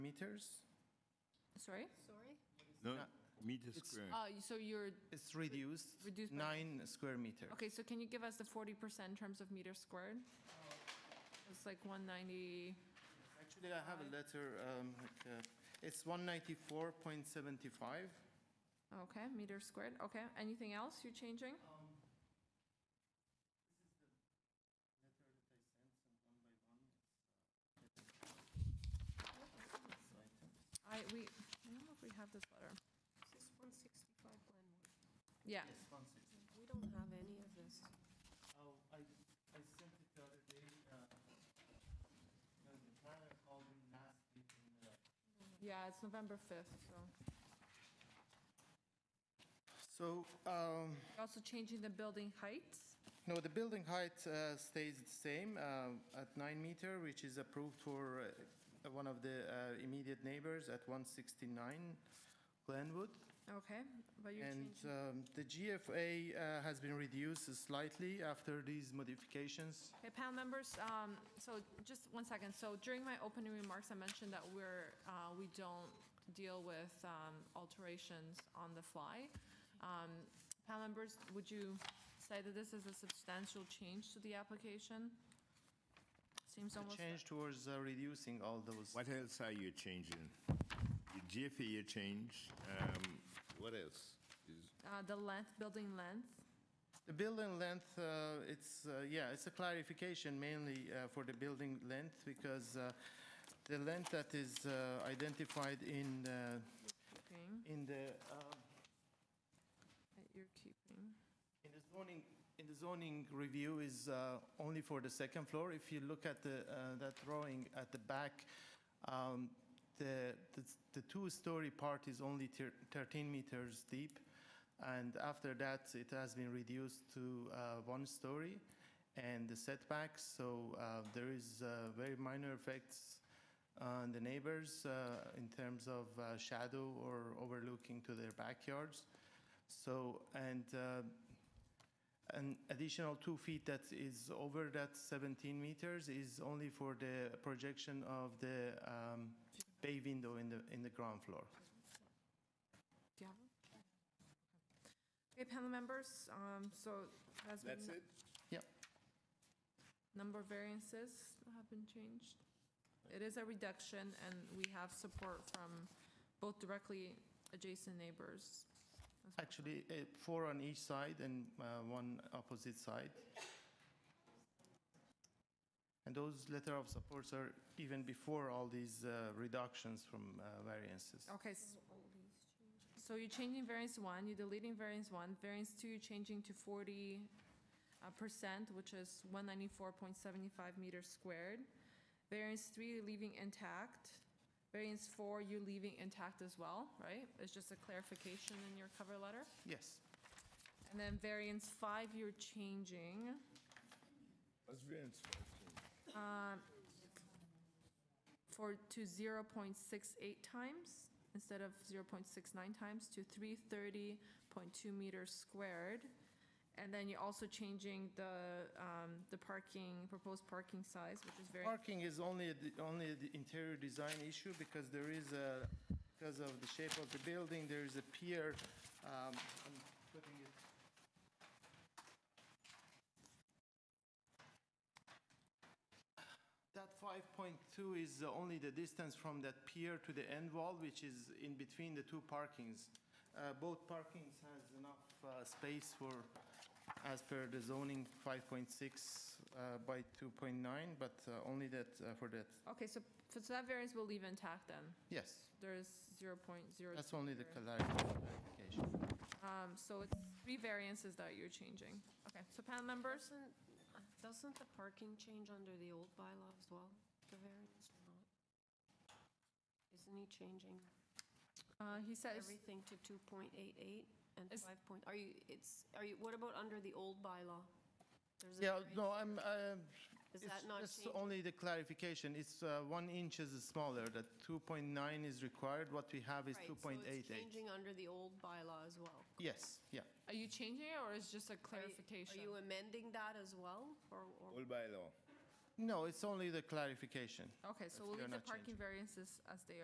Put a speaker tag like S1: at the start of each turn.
S1: meters?
S2: Sorry?
S3: Sorry?
S4: No, meter
S1: It's-
S4: square.
S2: Uh, so you're,
S1: It's reduced,
S2: Reduced by-
S1: nine square meters.
S2: okay, so can you give us the forty percent in terms of meters squared? It's like one ninety,
S1: Actually, I have a letter, um, like, uh, it's 194.75.
S2: okay, meters squared, okay. Anything else you're changing? I, we, I don't know if we have this letter.
S3: This is 165 Glenwood.
S2: Yeah,
S3: We don't have any of this.
S1: Oh, I, I sent it the other day, uh, because the planner called me last week and, uh,
S2: yeah, it's November fifth, so.
S1: So, um,
S2: You're Also changing the building heights?
S1: no, the building height uh, stays the same uh, at nine meter, which is approved for uh, one of the uh, immediate neighbors at 169 Glenwood.
S2: Okay, but you're
S1: And
S2: changing,
S1: um, the GFA uh, has been reduced slightly after these modifications.
S2: okay, panel members, um, so just one second, so during my opening remarks, I mentioned that we're, uh, we don't deal with, um, alterations on the fly. Um, panel members, would you say that this is a substantial change to the application? Seems
S1: The
S2: almost.
S1: change towards uh, reducing all those.
S4: What else are you changing? Your GFA you changed. Um, what else? Is,
S2: Uh, the length, building length,
S1: The building length, uh, it's, uh, yeah, it's a clarification mainly uh, for the building length because uh, the length that is uh, identified in, uh,
S2: keeping,
S1: in the, um,
S2: that you're keeping.
S1: in the zoning, in the zoning review is uh, only for the second floor. If you look at the, uh, that drawing at the back, um, the, the, the two-story part is only thir- 13 meters deep. And after that, it has been reduced to uh, one story and the setbacks. So uh, there is uh, very minor effects on the neighbors uh, in terms of uh, shadow or overlooking to their backyards. So, and uh, an additional two feet that is over that 17 meters is only for the projection of the um, bay window in the, in the ground floor.
S2: Do you have them? Okay, panel members, um, so that's been.
S4: that's it?
S2: Number of variances have been changed. It is a reduction, and we have support from both directly adjacent neighbors. as well.
S1: Actually, eh, four on each side and uh, one opposite side. And those letter of supports are even before all these uh, reductions from uh, variances.
S2: Okay, s- so you're changing variance one, you're deleting variance one, variance two, you're changing to forty uh, percent, which is one ninety-four point seventy-five meters squared. Variance three, you're leaving intact. Variance four, you're leaving intact as well, right? It's just a clarification in your cover letter.
S1: Yes.
S2: And then variance five, you're changing.
S4: What's variance
S2: um, for, to 0.68 times instead of 0.69 times to 330.2 meters squared. And then you're also changing the, um, the parking, proposed parking size, which is very,
S1: Parking is only, a de- only an interior design issue because there is a, because of the shape of the building, there is a pier. um, I'm putting it. That 5.2 is only the distance from that pier to the end wall, which is in between the two parkings. Uh, Both parkings has enough uh, space for as per the zoning 5.6 uh, by 2.9, but uh, only that, uh, for that,
S2: okay, so, so that variance will leave intact then.
S1: yes,
S2: There's 0.02.
S1: that's only the clarification.
S2: Um, so it's three variances that you're changing. Okay, so panel members?
S3: Doesn't, doesn't the parking change under the old bylaw as well, the variance or not? Isn't he changing
S2: Uh, he says,
S3: everything to 2.88 and
S2: Is-
S3: 5 point, are you, it's, are you, what about under the old bylaw? There's a
S1: Yeah,
S3: variance.
S1: no, I'm, uh,
S3: Is
S1: it's
S3: that not
S1: just
S3: changing?
S1: only the clarification, it's uh, one inch is smaller, that 2.9 is required, what we have is
S3: Right, so
S1: 2.88.
S3: it's changing under the old bylaw as well.
S1: Yes, yeah,
S2: are you changing it or is just a
S3: Are you-
S2: clarification?
S3: Are you amending that as well, or? or-
S4: All by law.
S1: no, it's only the clarification.
S2: Okay,
S1: If
S2: so we'll
S1: they're
S2: leave the
S1: not
S2: parking variances as they are.